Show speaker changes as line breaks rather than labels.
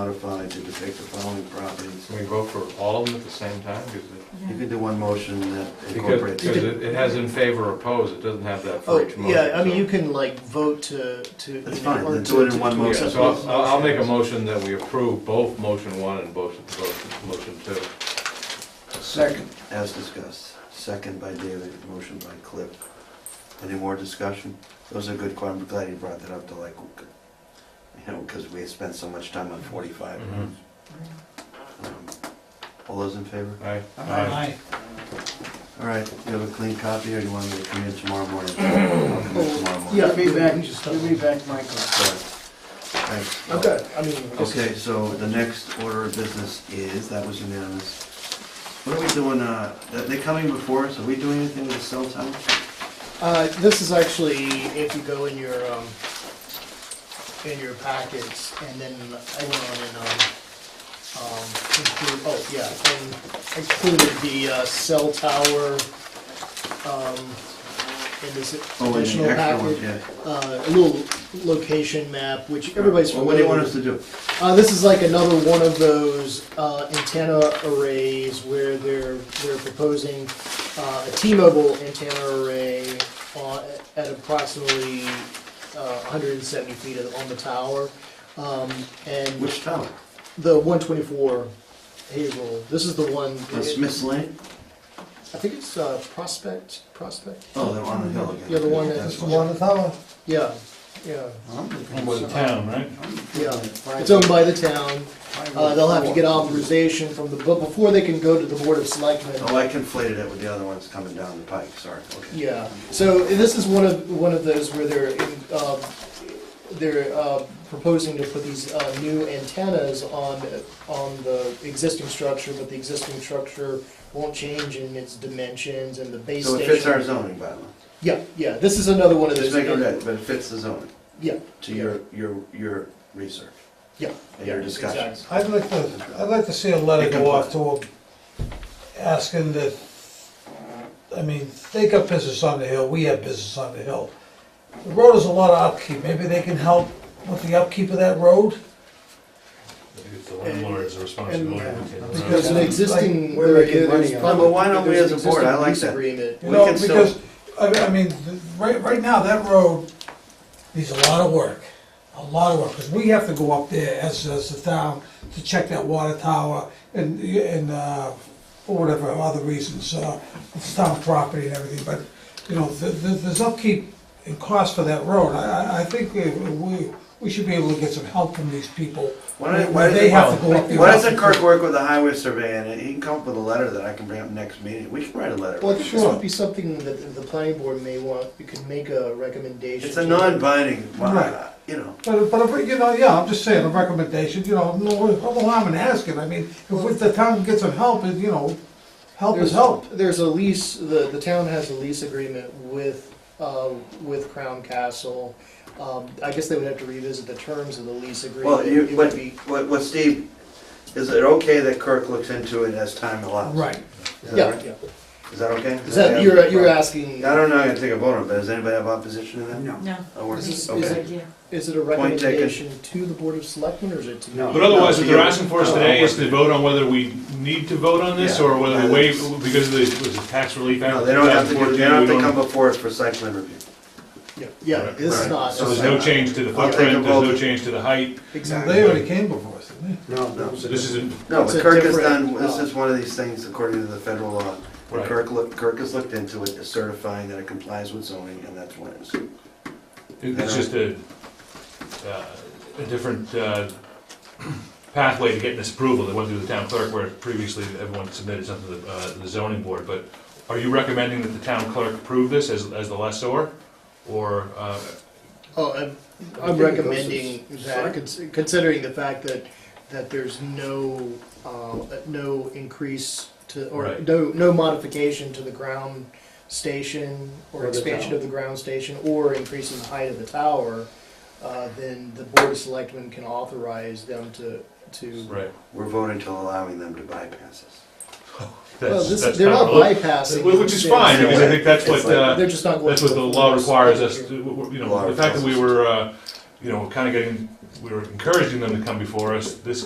modified to depict the following properties.
Can we vote for all of them at the same time? 'Cause it-
You could do one motion that
Because,
incorporates.
because it it has in favor or oppose, it doesn't have that for
Oh,
each motion.
yeah, I mean,
so-
you can like vote to, to.
That's
you know,
fine,
or
then
to-
do it in
to-
one
to
motion.
accept
So
both
I'll, I'll- I'll make a
motions.
motion that we approve both motion one and both, both motion two.
Second. As discussed, second by David, motion by Cliff. Any more discussion? Those are good, que- I'm glad you brought that up to like, you know, because we spent so much time on forty-five.
Mhm.
Um, All those in favor?
Aye.
All right, you have a clean copy or you want me to come in tomorrow morning? I'll come in tomorrow morning.
Yeah,
Give me back,
just
give me back my card.
Sorry. Thanks.
I've got, I mean. I guess-
Okay, so the next order of business is, that was unanimous. What are we doing, uh, are they coming before us? Are we doing anything with cell tower?
Uh, this is actually, if you go in your, um, in your packets, and then I went on and, um, um, include, oh, yeah, and included the, uh, cell tower, um, in this
Oh, and
additional
the extra ones,
packet.
yeah.
Uh, a little location map, which everybody's
Well,
familiar with.
What do you want us to do?
Uh, this is like another one of those uh, antenna arrays where they're they're proposing uh, a T-Mobile antenna array on, at approximately uh, 170 feet on the tower, um, and
Which tower?
the 124 Hazel. This is the one.
On Smith's Lane?
I think it's uh, Prospect. Prospect.
Oh, they're on the hill again.
Yeah, the one that-
That's
the
why.
Yeah, yeah,
the town, right?
yeah. It's owned by the town. Uh, they'll have to get authorization from the but before they can go to the board of selectmen.
Oh, I conflated it with the other ones coming down the pike, sorry, okay.
Yeah, so this is one of, one of those where they're, uh, they're uh, proposing to put these uh, new antennas on, on the existing structure, but the existing structure won't change in its dimensions and the base
So
station.
it fits our zoning bylaw.
Yeah, yeah, this is another one of those.
Just make it red, but it fits the zoning,
Yeah,
to your, your, your research
yeah.
and your
yeah,
discussions.
exactly.
I'd like to, I'd like to see a letter go off to them, asking that, I mean, they got business on the hill, we have business on the hill. The road is a lot of upkeep, maybe they can help with the upkeep of that road?
The landlord's responsibility. to take
uh,
the
There's an
road.
existing.
Like, we're making
there- there's
money on it.
probably-
But why don't we
there's an
as a board? I
existing
like
lease
that.
Agreement.
We
You know,
can still-
because, I, I mean, the- right, right now, that road needs a lot of work, a lot of work, because we have to go up there as, as the town to check that water tower and, and, uh, for whatever other reasons, uh, it's town property and everything, but, you know, th th there's upkeep and cost for that road, I, I, I think we, we, we should be able to get some help from these people.
Why don't-
when
why
They
doesn't-
have to go up there.
Why doesn't Kirk work with the highway survey and he can come up with a letter that I can bring up next meeting? We can write a letter.
Well, I think this
Sure.
would be something that the- the planning board may want, you could make a recommendation.
It's a
to-
non-binding, well,
Right.
you know,
But, but, if we- you know, yeah, I'm just saying, a recommendation, you know, no, no harm in asking, I mean, if we- the town gets some help, and, you know, help is
There's
help.
There's a lease, the, the town has a lease agreement with, uh, with Crown Castle. Um, I guess they would have to revisit the terms of the lease agreement.
well, you,
It would
what,
be-
what, what Steve, is it okay that Kirk looks into it as time allows?
Right,
Is that
Yeah,
right?
yeah.
Is that okay?
Is that, you're, you're
I
asking,
don't know, I can take a vote on it, but does anybody have opposition to that?
no.
No,
Oh, we're-
This is-
okay.
is it-
yeah.
is it a
Point taken.
recommendation to the Board of Selectmen or is it to?
No.
But otherwise, what they're
No,
asking for us
no,
today is
no.
to vote on whether we need to vote on this,
Yeah.
or whether we waive, because of the, was it tax relief act?
No, they don't have to, do- they don't have to
2014,
come before us for site plan review.
Yeah, Yeah, this is
Right.
not.
So there's no change to the
I'll take a
footprint, there's no
vote.
change to the height,
Exactly. They already came before us, didn't
No.
so this isn't,
No,
It's
but
a
Kirk has
different,
done, this
uh,
is one of these things according to the federal law. When
Right.
Kirk looked, Kirk has looked into it, is certifying that it complies with zoning, and that's what it is.
it's just a, uh, a different uh, pathway to getting this approval that went through the town clerk, where previously everyone submitted something to the, uh, the zoning board, but are you recommending that the town clerk approve this as, as the lessor? Or, uh,
Oh, I'm, I'm recommending that, cons- considering the fact that, that there's no, uh, no increase to, or
Right.
no, no modification to the ground station or expansion of the ground station or increase in the height of the tower, uh, then the board of selectmen can authorize them to, to.
right,
We're voting to allowing them to bypass us.
Well,
that's,
this,
that's
they're not
kind of-
bypassing.
Well, Which is fine, because I think that's what,
It's like-
uh,
They're just not going.
that's what
to
the law
force.
requires us, to- w- w- you know, the fact that we were, uh, you know, we're kind of getting, we were encouraging them to come before us. This